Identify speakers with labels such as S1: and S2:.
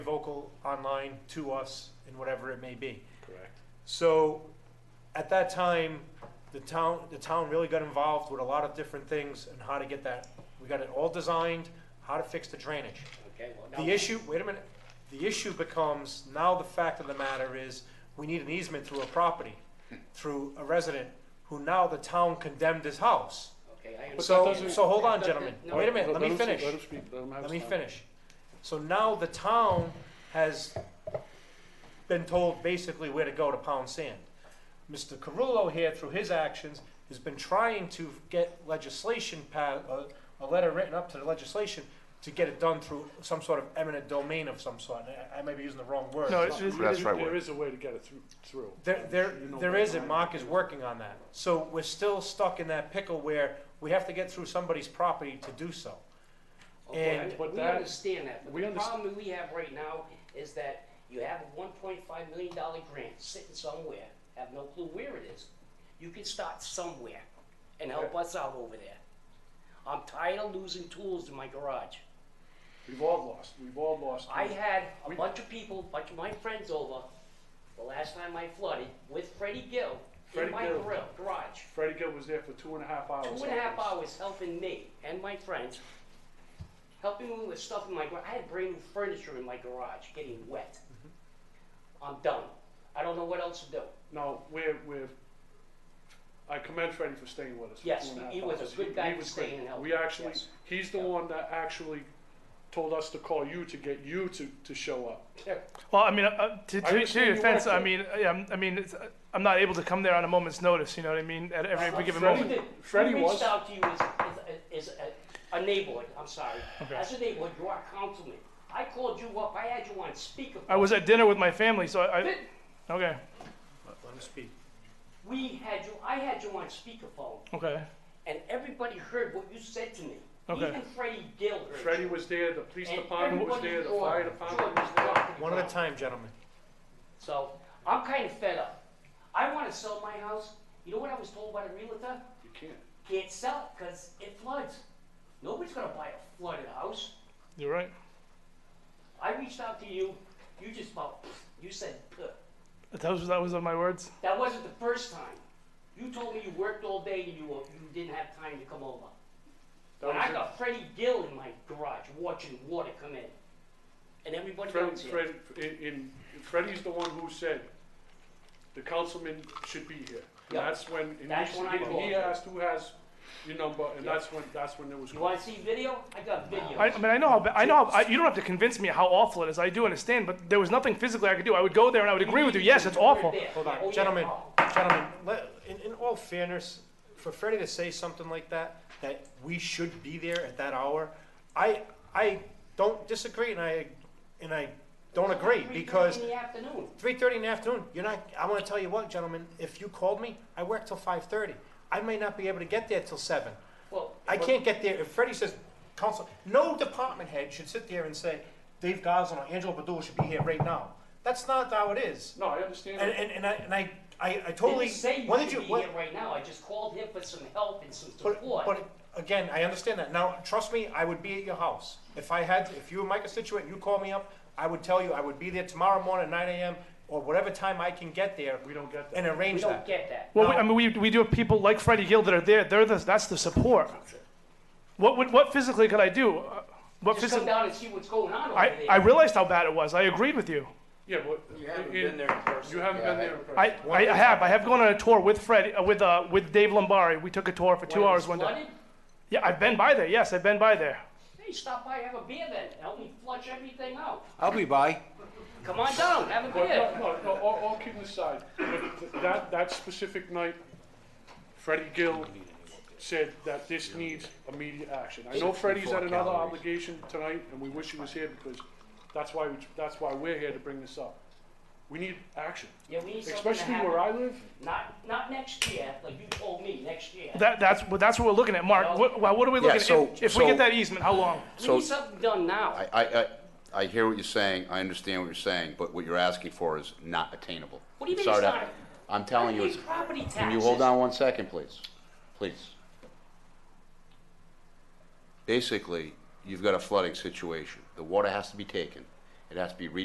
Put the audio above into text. S1: vocal online to us in whatever it may be.
S2: Correct.
S1: So at that time, the town, the town really got involved with a lot of different things and how to get that. We got it all designed, how to fix the drainage.
S2: Okay, well, now,
S1: The issue, wait a minute, the issue becomes, now the fact of the matter is, we need an easement through a property, through a resident, who now the town condemned his house.
S2: okay, I
S1: But So- that
S2: understand.
S1: doesn't- so hold on, gentlemen.
S2: No,
S1: Wait a minute, let me
S3: him speak,
S1: finish.
S3: Let him speak, let him have
S1: Let
S3: his
S1: me
S3: time.
S1: finish. So now the town has been told basically where to go to pound sand. Mr. Carullo here, through his actions, has been trying to get legislation passed, a, a letter written up to the legislation to get it done through some sort of eminent domain of some sort. I, I may be using the wrong word.
S3: No, it's, it's,
S4: That's
S3: it-
S4: right,
S3: there
S4: Wade.
S3: is a way to get it through, through.
S1: There, there,
S3: You know
S1: there
S3: better
S1: is,
S3: than
S1: and
S3: I
S1: Mark
S3: do.
S1: is working on that. So we're still stuck in that pickle where we have to get through somebody's property to do so.
S2: Okay,
S1: and-
S3: But
S2: We
S3: that-
S2: understand that,
S3: we
S2: but the
S3: underst-
S2: problem that we have right now is that you have a one point five million dollar grant sitting somewhere, have no clue where it is. You can start somewhere and help us out over there. I'm tired of losing tools in my garage.
S3: We've all lost, we've all lost.
S2: I had a
S3: We-
S2: bunch of people, bunch of my friends over, the last time I flooded, with Freddie Gill in
S3: Freddie
S2: my
S3: Gill.
S2: grill, garage.
S3: Freddie Gill was there for two and a half hours.
S2: two and a half
S3: helping
S2: hours helping me and my friends, helping me with stuff in my garage. I had brand new furniture in my garage getting wet. I'm done. I don't know what else to do.
S3: us. No, we're, we're, I commend Freddie for staying with us. for
S2: Yes,
S3: two and
S2: he
S3: half
S2: was a
S3: hours.
S2: good
S3: He-
S2: guy
S3: he
S2: for
S3: was
S2: staying
S3: great.
S2: and helping
S3: We
S2: us,
S3: actually,
S2: yes.
S3: he's the one that actually told us to call you to get you to, to show up.
S5: Well, I mean, uh, uh, to,
S3: I
S5: to, to
S3: understand
S5: your
S3: you
S5: defense,
S3: wanna
S5: I
S3: do-
S5: mean, I- I'm, I mean, it's, uh, I'm not able to come there on a moment's notice. You know what I mean? At every
S2: Uh,
S5: given
S2: Freddie
S5: moment.
S2: did-
S3: Freddie
S2: who reached
S3: was-
S2: out to you is, is, is a, a neighborhood. I'm sorry.
S5: Okay.
S2: As a neighborhood, you are councilman. I called you up. I had you on speakerphone.
S5: I was at dinner with my family, so I.
S2: Fit-
S5: I okay,
S1: Let me speak.
S2: We had you. I had you on speakerphone,
S5: okay,
S2: and everybody heard what you said to me.
S5: Okay.
S2: Even Freddie Gill heard. you.
S3: Freddie was there, the police
S2: And
S3: department was
S2: everybody
S3: there, the
S2: thought
S3: fire
S2: George
S3: department was
S2: was
S3: there.
S2: walking
S1: One at a
S2: around.
S1: time, gentlemen.
S2: So I'm kind of fed up. I want to sell my house. You know what I was told by the realtor?
S3: You can't.
S2: Can't sell because it floods. Nobody's gonna buy a flooded house.
S5: you're right.
S2: I reached out to you. You just about, you said, "Puh."
S5: That was that was my words.
S2: that wasn't the first time. You told me you worked all day and you, were- you didn't have time to come over.
S3: That
S2: When
S3: was
S2: I
S3: it.
S2: got Freddie Gill in my garage watching water come in. And everybody
S3: Fred,
S2: else here.
S3: Fred, in, in, Freddie's the one who said, the councilman should be here. And
S2: Yep.
S3: that's when, and
S2: That's
S3: he,
S2: when I
S3: and
S2: called.
S3: he asked who has your number, and
S2: Yep.
S3: that's when, that's when there was.
S2: You wanna see video? I got video.
S5: I, I mean, I know how ba- I know how I, you don't have to convince me how awful it is. I do understand, but there was nothing physically I could do. I would go there and I would agree with you. Yes, it's awful.
S1: Hold on, gentlemen, gentlemen, let, in, in all fairness, for Freddie to say something like that, that we should be there at that hour, I, I don't disagree and I, and I don't agree because
S2: In the afternoon.
S1: three thirty in the afternoon, you're not, I wanna tell you what, gentlemen, if you called me, I work till five thirty. I may not be able to get there till seven.
S2: Well,
S1: I can't get there, if Freddie says, council, no department head should sit there and say, Dave Goslin or Angelo Badul should be here right now. That's not how it is.
S3: No, I understand.
S1: And, and, and I, and I, I, I totally,
S2: didn't say
S1: when
S2: you
S1: did
S2: should
S1: you,
S2: be
S1: what-
S2: here right now. I just called him for some help and some
S1: but,
S2: support.
S1: but, again, I understand that. Now, trust me, I would be at your house. If I had, if you were my constituent, you called me up, I would tell you, I would be there tomorrow morning at nine AM or whatever time I can get there
S3: We don't get that.
S1: and
S2: We
S1: arrange
S2: don't
S1: that.
S2: get that.
S5: Well, we, I mean, we, we do have people like Freddie Gill that are there. They're the, that's the support. What would what physically could I do? Uh, What
S2: Just come
S5: physically?
S2: down and see what's going on over
S5: I, I
S2: there.
S5: realized how bad it was. I agreed with you.
S3: Yeah, but.
S6: You haven't
S3: in-
S6: been there in person.
S3: You haven't
S6: Yeah,
S3: been
S6: I
S3: there in
S6: haven't.
S3: person.
S5: I, I I have. I have gone on a tour with Fred, uh, with, uh, with Dave Lombari. We took a tour for two
S2: When it
S5: hours
S2: was
S5: one day.
S2: flooded,
S5: Yeah, I've been by there. Yes, I've been by there.
S2: Hey, stop by, have a beer then. Help me flush everything out.
S6: I'll be by.
S2: Come on down, have a
S3: But no,
S2: beer.
S3: no, no, all, all kidding aside, but that, that specific night, Freddie Gill said that this needs immediate action. I know Freddie's at another obligation tonight, and we wish he was here because that's why, we, that's why we're here to bring this up. We need action,
S2: Yeah, we need something to
S3: especially where
S2: happen.
S3: I live.
S2: Not, not next year, like you told me, next year.
S5: That, that's, well, that's what we're looking at, Mark. What, well, what are we looking at?
S4: so-
S5: If- If we
S4: so-
S5: get that easement, how long?
S2: We
S4: So-
S2: need something done now.
S4: I, I, I, I hear what you're saying, I understand what you're saying, but what you're asking for is not attainable.
S2: What do you mean it's
S4: Sorry to-
S2: not?
S4: I'm telling you,
S2: Hey,
S4: it's,
S2: Property taxes.
S4: can you hold on one second, please? Please. Basically, you've got a flooding situation. The water has to be taken. It has to be re-